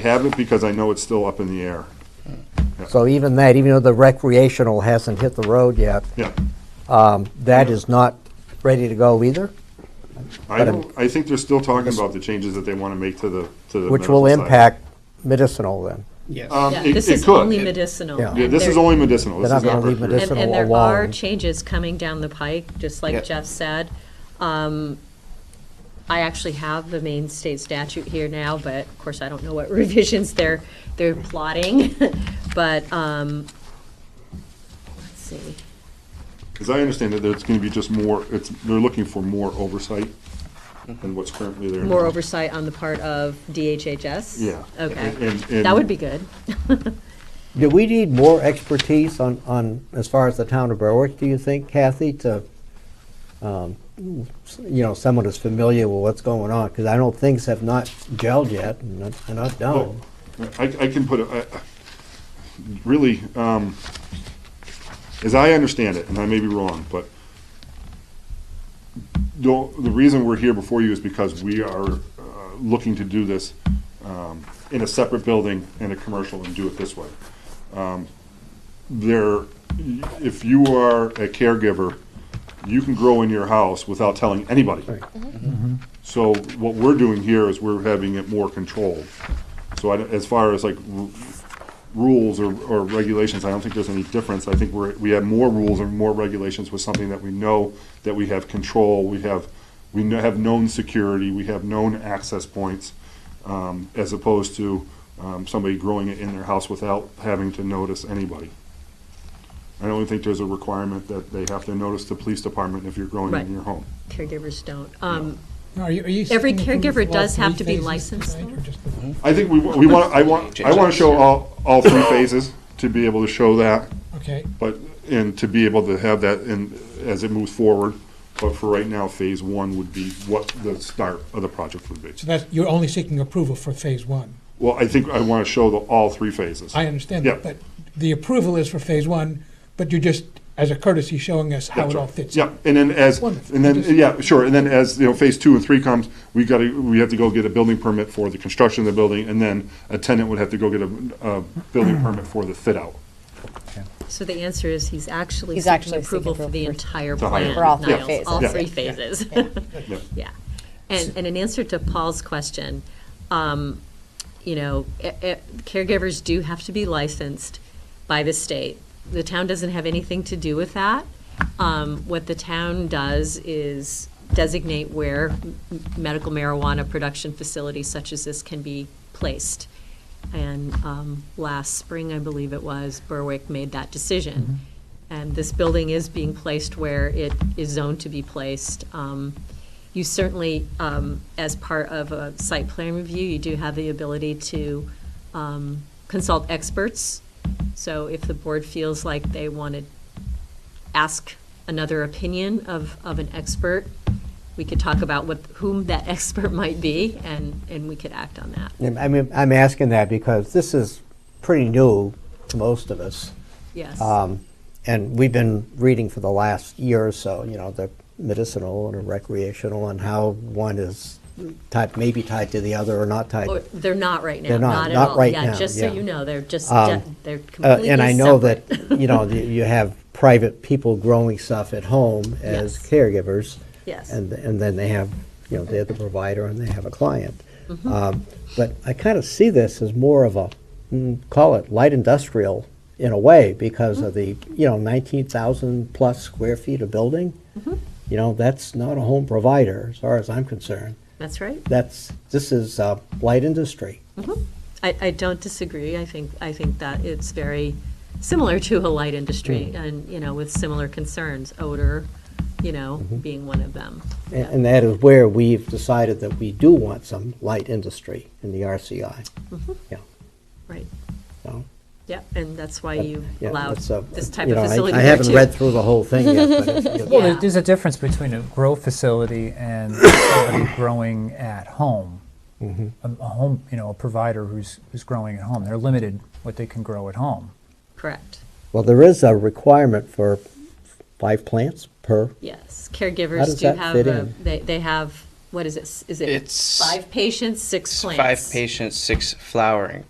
have it because I know it's still up in the air. So even that, even though the recreational hasn't hit the road yet, Yeah. um, that is not ready to go either, I But I'm- don't, I think they're still talking about the changes that they want to make to the, to the. which will medical side. impact medicinal then. Yes. Um, Yeah, it- This it is could. only It- medicinal. Yeah. Yeah, and this is there- only medicinal. This They're is not not gonna leave recreational. And, and there medicinal are alone. changes coming down the pike, just Yeah. like Jeff said. Um, I actually have the Maine state statute here now, but of course, I don't know what revisions they're, they're plotting. But, um, let's see, As I understand it, it's going to be just more, it's, they're looking for more oversight than what's currently there. more now. oversight on the part of DHHS? Yeah. Okay, And- and- that would be good. Do we need more expertise on, on, as far as the town of Berwick, do you think, Kathy, to, um, s- you know, someone who's familiar with what's going on? Because I know things have not gelled yet and not- and not Oh, done. I, I can put, a- I- I- really, um, as I understand it, and I may be wrong, but the, the reason we're here before you is because we are uh, looking to do this um, in a separate building and a commercial and do it this way. Um, There, if you are a caregiver, you can grow in your house without telling anybody. So what we're doing here is we're having it more controlled. So I, as far as like r- rules or, or regulations, I don't think there's any difference. I think we're, we have more rules and more regulations with something that we know, that we have control, we have, we kn- have known security, we have known access points, um, as opposed to, um, somebody growing it in their house without having to notice anybody. I don't think there's a requirement that they have to notice the police department if you're growing it Right. in your home. Caregivers don't. Um, Every Every caregiver does have to be licensed, though? I think we, we want, I want, I want to show all, all three phases to be able to show that. Okay, But, and to be able to have that in, as it moves forward, but for right now, phase one would be what the start of the project would be. so that's, you're only seeking approval for phase one. Well, I think I want to show the, all three phases. I understand that, Yeah. but the approval is for phase one, but you're just, as a courtesy, showing us how That's it all right. fits. Yeah, and then as, Wonderful. and then, Just- yeah, sure, and then as, you know, phase two and three comes, we gotta, we have to go get a building permit for the construction of the building, and then a tenant would have to go get a, a building permit for the fit out. so the answer is he's actually He's seeking actually seeking approval for the approval for- entire The higher- plan. For all three Niles, All Yeah. three phases. phases. Yeah. Yeah. And, and in answer to Paul's question, um, you know, e- e- caregivers do have to be licensed by the state. The town doesn't have anything to do with that. Um, what the town does is designate where m- medical marijuana production facilities such as this can be placed. And, um, last spring, I believe it was, Berwick made that decision. And this building is being placed where it is zoned to be placed. Um, you certainly, um, as part of a site plan review, you do have the ability to um, consult experts. So if the board feels like they want to ask another opinion of, of an expert, we could talk about what, whom that expert might be, and, and we could act on that. And I mean, I'm asking that because this is pretty new to most of us. Yes. Um, And we've been reading for the last year or so, you know, the medicinal and the recreational and how one is tied, maybe tied to the other or not tied. Or They're not right now, They're not- not at all. not right Yeah, now, just so yeah. you know, they're just, Um, de- they're Uh, completely And I know that, separate. you know, you you have private people growing stuff at home as Yes. caregivers. Yes. And, and then they have, you know, they're the provider and they have a client. Mm-hmm. Um, But I kind of see this as more of a, mm, call it light industrial in a way because of the, Mm-hmm. you know, 19,000 plus square feet of building. Mm-hmm. You know, that's not a home provider as far as I'm concerned. That's right. That's, this is uh, light industry. I, I don't disagree. I think, I think that it's very similar to a light industry Mm. and, you know, with similar concerns, odor, you know, Mm-hmm. being one of them. And and that is where we've decided that we do want some light industry in the RCI. Mm-hmm. Yeah, Right. so. Yeah, and that's why but, you yeah, allowed that's, uh, this type you of know, I- facility I there, haven't too. read through the whole thing yet, but it- Yeah. it- Well, there- there's a difference between a grow facility and somebody growing at home. A a home, you know, a provider who's, who's growing at home. They're limited what they can grow at home. Correct. well, there is a requirement for five plants per, Yes. How Caregivers does do that have, fit a- in? they, they have, what is it? S- Is it It's five patients, six plants? five patients, six flowering